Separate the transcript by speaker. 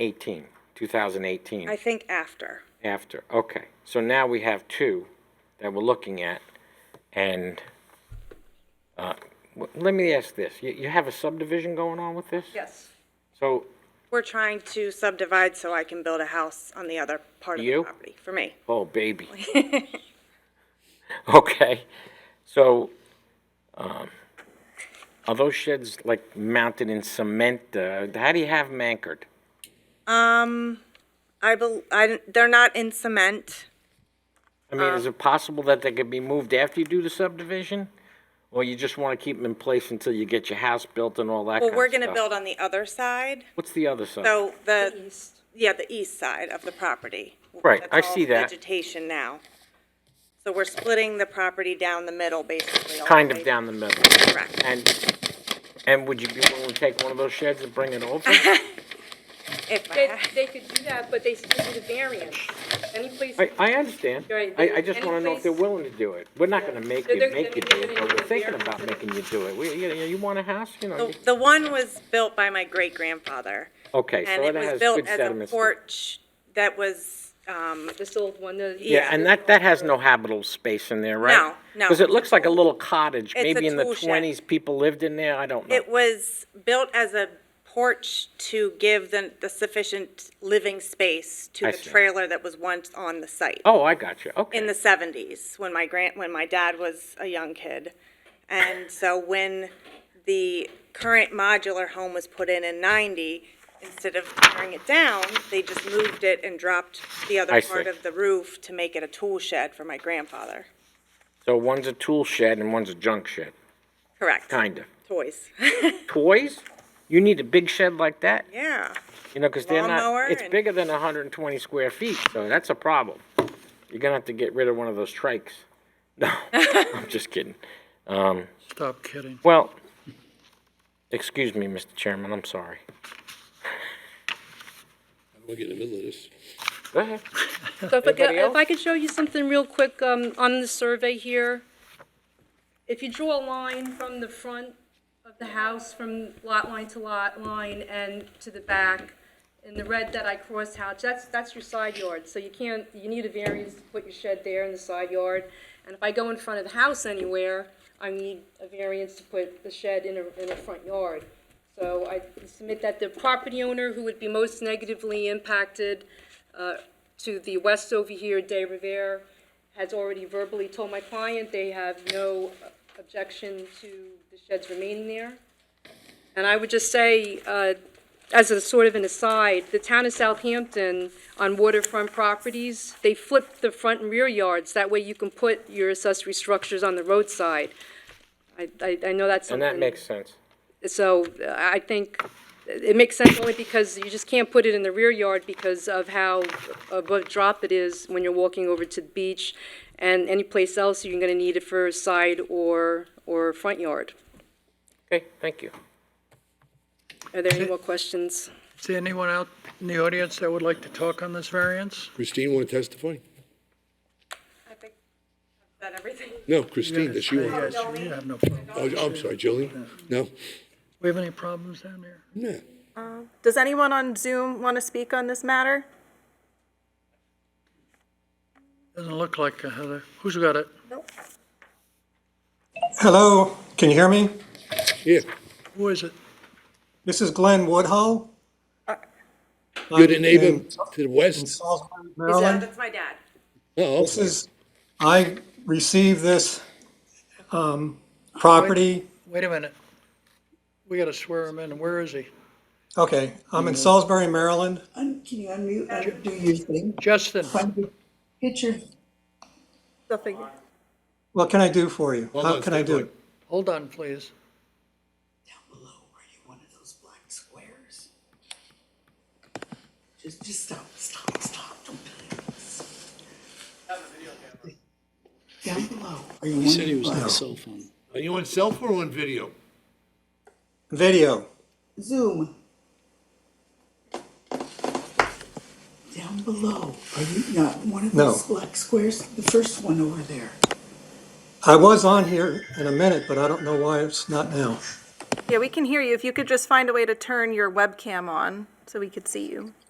Speaker 1: 18, 2018,
Speaker 2: I think after.
Speaker 1: after, okay. So now we have two that we're looking at, and, uh, w- let me ask this, you, you have a subdivision going on with this?
Speaker 2: Yes.
Speaker 1: So,
Speaker 2: We're trying to subdivide so I can build a house on the other part of the
Speaker 1: You?
Speaker 2: property, for me.
Speaker 1: oh, baby. Okay, so, um, are those sheds like mounted in cement, uh, how do you have them anchored?
Speaker 2: Um, I bel, I, they're not in cement.
Speaker 1: I mean,
Speaker 2: Uh.
Speaker 1: is it possible that they could be moved after you do the subdivision? Or you just want to keep them in place until you get your house built and all that
Speaker 2: Well,
Speaker 1: kind
Speaker 2: we're
Speaker 1: of
Speaker 2: gonna
Speaker 1: stuff? Oh.
Speaker 2: build on the other side,
Speaker 1: What's the other side?
Speaker 2: so the, yeah, the east side of the property.
Speaker 1: Right,
Speaker 2: That's
Speaker 1: I
Speaker 2: all
Speaker 1: see that.
Speaker 2: Vegetation now. So we're splitting the property down the middle, basically. all the
Speaker 1: Kind of
Speaker 2: way-
Speaker 1: down the middle.
Speaker 2: Correct.
Speaker 1: And, and would you be willing to take one of those sheds and bring it over?
Speaker 2: If I
Speaker 3: They,
Speaker 2: had-
Speaker 3: they could do that, but they still need a variance. Any place,
Speaker 1: I, I understand.
Speaker 3: Right,
Speaker 1: I, I just
Speaker 3: any
Speaker 1: want to know if they're
Speaker 3: place-
Speaker 1: willing to do it. We're not going to make
Speaker 3: They're-
Speaker 1: you,
Speaker 3: they're-
Speaker 1: make you
Speaker 3: I
Speaker 1: do
Speaker 3: mean,
Speaker 1: it,
Speaker 3: they're
Speaker 1: but we're
Speaker 3: gonna
Speaker 1: thinking
Speaker 3: be-
Speaker 1: about making you do it. We, you, know, you want a house, you know?
Speaker 2: The,
Speaker 1: you-
Speaker 2: the one was built by my great-grandfather.
Speaker 1: Okay, so
Speaker 2: And it
Speaker 1: it
Speaker 2: was
Speaker 1: has
Speaker 2: built
Speaker 1: good
Speaker 2: as a
Speaker 1: sediments. to it.
Speaker 2: porch that was, um,
Speaker 3: this old one, the.
Speaker 1: Yeah, and that, that has no habitable space in there, right?
Speaker 2: No, no.
Speaker 1: Because it looks like a little cottage,
Speaker 2: a
Speaker 1: maybe in the
Speaker 2: tool shed.
Speaker 1: twenties, people lived in there, I don't know.
Speaker 2: It was built as a porch to give the, the sufficient living space to
Speaker 1: I
Speaker 2: the
Speaker 1: see.
Speaker 2: trailer that was once on the site.
Speaker 1: Oh, I got you,
Speaker 2: In
Speaker 1: okay.
Speaker 2: the seventies, when my grand, when my dad was a young kid. And so when the current modular home was put in in ninety, instead of tearing it down, they just moved it and dropped the
Speaker 1: I
Speaker 2: other
Speaker 1: see.
Speaker 2: part of the roof to make it a tool shed for my grandfather.
Speaker 1: So one's a tool shed and one's a junk shed,
Speaker 2: Correct.
Speaker 1: kind of.
Speaker 2: Toys.
Speaker 1: Toys? You need a big shed like that?
Speaker 2: Yeah.
Speaker 1: You know, because they're
Speaker 2: Lawnmower
Speaker 1: not, it's
Speaker 2: and-
Speaker 1: bigger than hundred and twenty square feet, so that's a problem. You're gonna have to get rid of one of those trikes. No, I'm just kidding.
Speaker 4: Stop kidding.
Speaker 1: Well, excuse me, Mr. Chairman, I'm sorry.
Speaker 5: We'll get in the middle of this.
Speaker 1: Go ahead.
Speaker 3: So if I could,
Speaker 1: Anybody else?
Speaker 3: if I could show you something real quick, um, on the survey here. If you draw a line from the front of the house, from lot line to lot line and to the back, in the red that I crossed out, that's, that's your side yard, so you can't, you need a variance to put your shed there in the side yard. And if I go in front of the house anywhere, I need a variance to put the shed in a, in a front yard. So I submit that the property owner who would be most negatively impacted, uh, to the west over here, De Rivera, has already verbally told my client they have no objection to the sheds remaining there. And I would just say, uh, as a sort of an aside, the town of Southampton on waterfront properties, they flip the front and rear yards. That way you can put your accessory structures on the roadside. I, I, I know that's
Speaker 1: And that
Speaker 3: something.
Speaker 1: makes sense.
Speaker 3: So uh, I think it makes sense only because you just can't put it in the rear yard because of how above drop it is when you're walking over to the beach and any place else you're going to need it for side or, or front yard.
Speaker 1: Okay, thank you.
Speaker 3: Are there any more questions?
Speaker 4: Is there anyone out in the audience that would like to talk on this variance?
Speaker 5: Christine, want to testify?
Speaker 2: I think that everything.
Speaker 5: No, Christine, does she want?
Speaker 4: Yes, you have no problem.
Speaker 5: Oh, I'm sorry, Jillian? No?
Speaker 4: We have any problems down there?
Speaker 5: No.
Speaker 6: Does anyone on Zoom want to speak on this matter?
Speaker 4: Doesn't look like a Heather. Who's got it?
Speaker 7: Hello, can you hear me?
Speaker 5: Yeah,
Speaker 4: Who is it?
Speaker 7: This is Glenn Woodhull.
Speaker 5: you're the neighbor
Speaker 7: In-
Speaker 5: to the
Speaker 7: In
Speaker 5: west?
Speaker 7: Salisbury,
Speaker 2: Is that-
Speaker 7: Maryland.
Speaker 2: That's my dad.
Speaker 5: Oh,
Speaker 7: This is, I received this um, property,
Speaker 4: Wait a minute. We gotta swear him in. Where is he?
Speaker 7: okay, I'm in
Speaker 5: Mm-hmm.
Speaker 7: Salisbury, Maryland.
Speaker 8: Un- Can you unmute and do your thing?
Speaker 4: Justin,
Speaker 8: Find your- Get your,
Speaker 7: What can I do for you?
Speaker 5: Hold
Speaker 7: How
Speaker 5: on,
Speaker 7: can I
Speaker 5: stay
Speaker 7: do
Speaker 5: put.
Speaker 7: it?
Speaker 4: hold on, please.
Speaker 8: down below, are you one of those black squares? Just, just stop, stop, stop, don't do this. Down below, are you one of those?
Speaker 9: He said he was on a cell phone.
Speaker 5: Are you on cell phone or on video?
Speaker 7: Video,
Speaker 8: Zoom. Down below, are you not one of
Speaker 7: No.
Speaker 8: those black squares? The first one over there.
Speaker 7: I was on here in a minute, but I don't know why it's not now.
Speaker 6: Yeah, we can hear you. If you could just find a way to turn your webcam on so we could see you.